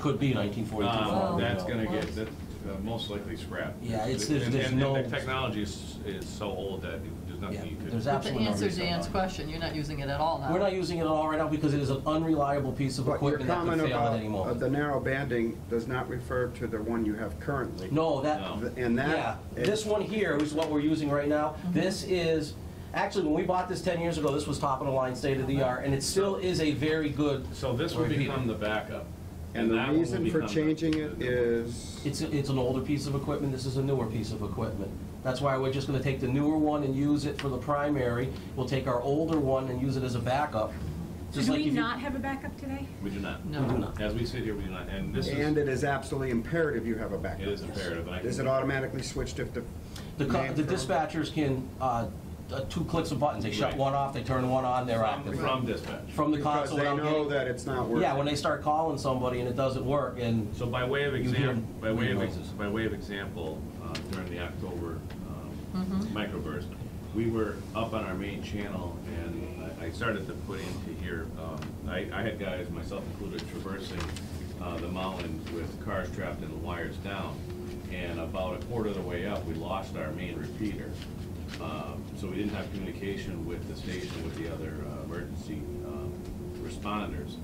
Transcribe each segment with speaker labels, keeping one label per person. Speaker 1: could be nineteen forty-two.
Speaker 2: Um,
Speaker 3: Wow.
Speaker 2: That's gonna get, that's uh, most likely scrapped.
Speaker 1: Yeah, it's- there's-
Speaker 2: And-
Speaker 1: there's
Speaker 2: and-
Speaker 1: no-
Speaker 2: And the technology is, is so old that there's
Speaker 1: Yeah,
Speaker 2: nothing you
Speaker 1: there's
Speaker 2: could,
Speaker 3: But to
Speaker 1: absolutely no
Speaker 3: answer
Speaker 1: reason
Speaker 3: Dan's
Speaker 1: why.
Speaker 3: question, you're not using it at all now.
Speaker 1: We're not using it at all right now because it is an unreliable piece of
Speaker 4: But your
Speaker 1: equipment that could
Speaker 4: comment
Speaker 1: fail at
Speaker 4: about
Speaker 1: any
Speaker 4: uh, the
Speaker 1: moment.
Speaker 4: narrow banding does not refer to the one you have currently.
Speaker 1: No, that,
Speaker 2: No.
Speaker 4: Th- And
Speaker 1: yeah,
Speaker 4: that. Mm-hmm. it-
Speaker 1: this one here is what we're using right now. This is, actually, when we bought this ten years ago, this was top of the line, state of the art, and it still is a very good,
Speaker 2: so this will become the backup.
Speaker 4: And the
Speaker 2: that one will
Speaker 4: reason
Speaker 2: become
Speaker 4: for
Speaker 2: the-
Speaker 4: changing
Speaker 2: the-
Speaker 4: it
Speaker 2: the-
Speaker 4: is.
Speaker 1: it's, it's an older piece of equipment, this is a newer piece of equipment. That's why we're just gonna take the newer one and use it for the primary. We'll take our older one and use it as a backup.
Speaker 5: So
Speaker 1: Just
Speaker 5: do
Speaker 1: like
Speaker 5: we
Speaker 1: if you-
Speaker 5: not have a backup today?
Speaker 2: We do not.
Speaker 3: No. We do
Speaker 1: not.
Speaker 2: As we sit here, we do not, and this is,
Speaker 4: And
Speaker 2: it
Speaker 4: it is absolutely imperative you have a backup.
Speaker 2: is imperative. and I
Speaker 4: Is
Speaker 2: can-
Speaker 4: it automatically switched if the?
Speaker 1: The co-
Speaker 4: name
Speaker 1: the
Speaker 4: from-
Speaker 1: dispatchers can, uh, uh, two clicks of buttons, they shut
Speaker 2: Right.
Speaker 1: one off, they turn one on, they're
Speaker 2: From
Speaker 1: active.
Speaker 2: from dispatch.
Speaker 1: From the
Speaker 4: Because
Speaker 1: console
Speaker 4: they
Speaker 1: without
Speaker 4: know
Speaker 1: getting-
Speaker 4: that it's not working.
Speaker 1: Yeah, when they start calling somebody and it doesn't work, and
Speaker 2: So by way of
Speaker 1: You hear
Speaker 2: example, by way of, ex-
Speaker 1: noises.
Speaker 2: by way of example, uh, during the October um, microburst, we were up on our main channel and I I started to put into here, um, I, I had guys, myself included, traversing uh, the mountains with cars trapped and the wires down. And about a quarter of the way up, we lost our main repeater. Um, So we didn't have communication with the station, with the other uh, emergency um, responders.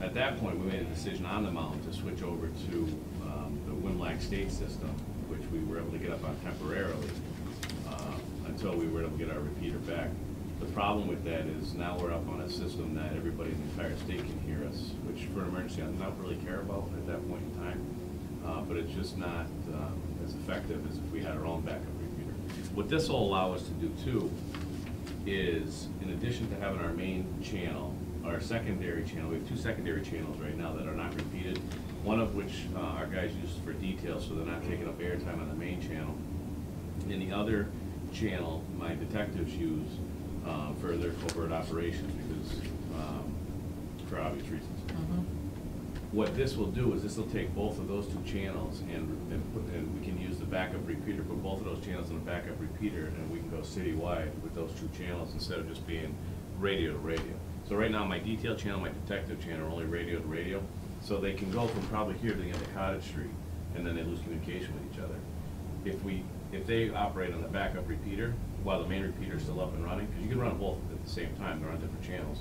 Speaker 2: At that point, we made a decision on the mountain to switch over to um, the Winlock State system, which we were able to get up on temporarily uh, until we were able to get our repeater back. The problem with that is now we're up on a system that everybody in the entire state can hear us, which for an emergency, I don't really care about at that point in time. Uh, But it's just not um, as effective as if we had our own backup repeater. What this will allow us to do too is, in addition to having our main channel, our secondary channel, we have two secondary channels right now that are not repeated, one of which uh, our guys use for details, so they're not taking up airtime on the main channel. And the other channel, my detectives use uh, for their covert operations, because, um, for obvious reasons. What this will do is this will take both of those two channels and, and put, and we can use the backup repeater, put both of those channels in a backup repeater, and we can go citywide with those two channels instead of just being radio to radio. So right now, my detail channel, my detective channel are only radio to radio, so they can go from probably here to the end of Cottage Street, and then they lose communication with each other. If we, if they operate on the backup repeater, while the main repeater's still up and running, because you can run them both at the same time, they're on different channels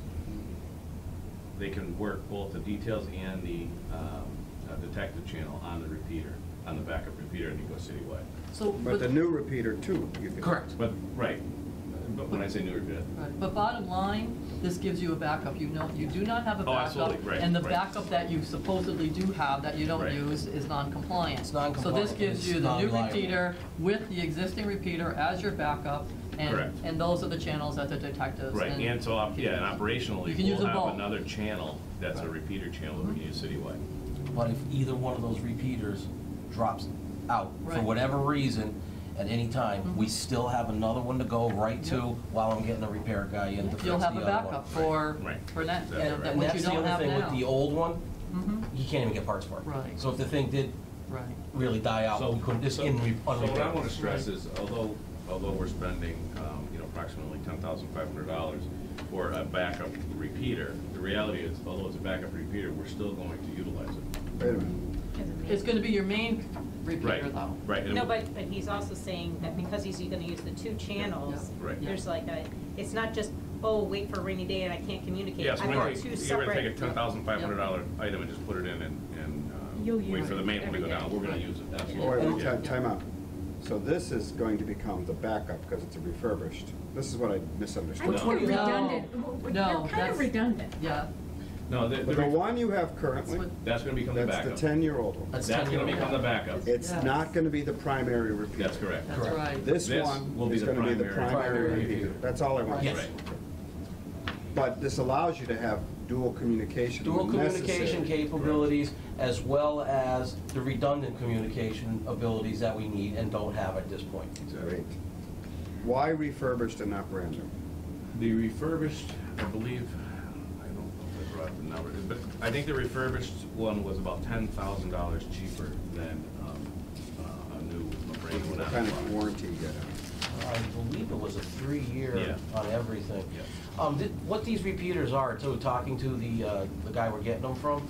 Speaker 2: they can work both the details and the um, uh, detective channel on the repeater, on the backup repeater, and you go citywide.
Speaker 3: So,
Speaker 4: But
Speaker 3: but,
Speaker 4: the new repeater too. you could-
Speaker 1: Correct.
Speaker 2: But, right, but when I say new repeater,
Speaker 3: right, but bottom line, this gives you a backup. You know, you do not have a
Speaker 2: Oh,
Speaker 3: backup.
Speaker 2: absolutely, right,
Speaker 3: And the
Speaker 2: right.
Speaker 3: backup that you supposedly do have that you don't
Speaker 2: Right.
Speaker 3: use is non-compliant.
Speaker 1: It's non-compliant,
Speaker 3: So this
Speaker 1: it's
Speaker 3: gives you the new
Speaker 1: non-reliable.
Speaker 3: repeater with the existing repeater as your backup. and
Speaker 2: Correct.
Speaker 3: And those are the channels that the detectives.
Speaker 2: right, and so, op- yeah, and
Speaker 3: You
Speaker 2: operationally,
Speaker 3: can use
Speaker 2: we'll
Speaker 3: them both.
Speaker 2: have another channel that's a repeater channel that we can use citywide.
Speaker 1: But if either one of those repeaters drops out for
Speaker 3: Right. Mm-hmm.
Speaker 1: whatever reason at any time, we still have another one to go right to while I'm getting a repair guy in to fix the
Speaker 3: You'll
Speaker 1: other
Speaker 3: have a
Speaker 1: one.
Speaker 3: backup for,
Speaker 2: Right.
Speaker 3: for that,
Speaker 2: Exactly
Speaker 3: that- that
Speaker 1: And
Speaker 3: which you
Speaker 1: that's the
Speaker 3: don't have
Speaker 1: other
Speaker 3: now.
Speaker 1: thing with the old one,
Speaker 3: Mhm.
Speaker 1: you can't even get parts for it.
Speaker 3: Right.
Speaker 1: So if the thing did
Speaker 3: Right.
Speaker 1: really die out, we couldn't, it's in, re-
Speaker 2: So
Speaker 1: on
Speaker 2: what I
Speaker 1: repair.
Speaker 2: want to stress is, although, although we're spending, um, you know, approximately ten thousand five hundred dollars for a backup repeater, the reality is, although it's a backup repeater, we're still going to utilize it.
Speaker 4: Wait a minute.
Speaker 3: It's gonna be your main
Speaker 2: Right,
Speaker 3: repeater though.
Speaker 2: right. and it
Speaker 5: No,
Speaker 2: will-
Speaker 5: but, but he's also saying that because he's gonna use the two channels,
Speaker 2: Yeah. Right.
Speaker 5: there's like a, it's not just, oh, wait for a rainy day and I can't communicate.
Speaker 2: Yeah, so
Speaker 5: I've
Speaker 2: we're
Speaker 5: got
Speaker 2: gonna
Speaker 5: two
Speaker 2: take, we're gonna
Speaker 5: separate-
Speaker 2: take a ten thousand five hundred dollar item and just put it in and, and, uh,
Speaker 5: You'll
Speaker 2: wait
Speaker 5: use
Speaker 2: for the
Speaker 5: it
Speaker 2: main one to go
Speaker 5: every
Speaker 2: down,
Speaker 5: day.
Speaker 2: we're gonna use it,
Speaker 4: Oh, wait,
Speaker 2: absolutely.
Speaker 4: wait, ti- time out. So this is going to become the backup because it's a refurbished. This is what I
Speaker 5: I think
Speaker 4: misunderstood.
Speaker 2: No.
Speaker 5: they're
Speaker 3: No.
Speaker 5: redundant.
Speaker 3: No,
Speaker 5: They're kind
Speaker 3: that's-
Speaker 5: of redundant.
Speaker 3: Yeah,
Speaker 2: No, the,
Speaker 4: But the
Speaker 2: the,
Speaker 4: one you have
Speaker 3: that's
Speaker 4: currently,
Speaker 3: what-
Speaker 2: that's gonna become the
Speaker 4: that's the
Speaker 2: backup.
Speaker 4: ten-year-old one.
Speaker 1: That's
Speaker 2: That's
Speaker 1: 10
Speaker 2: gonna
Speaker 1: year
Speaker 2: become the backup,
Speaker 4: It's
Speaker 3: Yes.
Speaker 4: not gonna be the primary repeater.
Speaker 2: that's correct.
Speaker 3: that's
Speaker 1: Correct.
Speaker 3: right.
Speaker 4: This
Speaker 2: This will
Speaker 4: one
Speaker 2: be
Speaker 4: is
Speaker 2: the
Speaker 4: gonna be the
Speaker 2: primary-
Speaker 4: primary
Speaker 1: Primary
Speaker 4: repeater.
Speaker 1: repeater.
Speaker 4: That's all I want.
Speaker 1: Yes.
Speaker 2: Right.
Speaker 4: But this allows you to have dual communication
Speaker 1: Dual
Speaker 4: when
Speaker 1: communication
Speaker 4: necessary.
Speaker 1: capabilities as well as the redundant communication abilities that we need and don't have at this point.
Speaker 4: Great. Why refurbished and not brand new?
Speaker 2: The refurbished, I believe, I don't know if I brought the number, but I think the refurbished one was about ten thousand dollars cheaper than, um, uh, a new Marina
Speaker 4: What
Speaker 2: would have
Speaker 4: kind of
Speaker 2: bought.
Speaker 4: warranty you get out of it?
Speaker 1: Uh, I believe it was a three-year
Speaker 2: Yeah.
Speaker 1: on everything.
Speaker 2: Yeah.
Speaker 4: Mm-hmm.
Speaker 1: Um, did- What these repeaters are, too, talking to the, uh, the guy we're getting them from,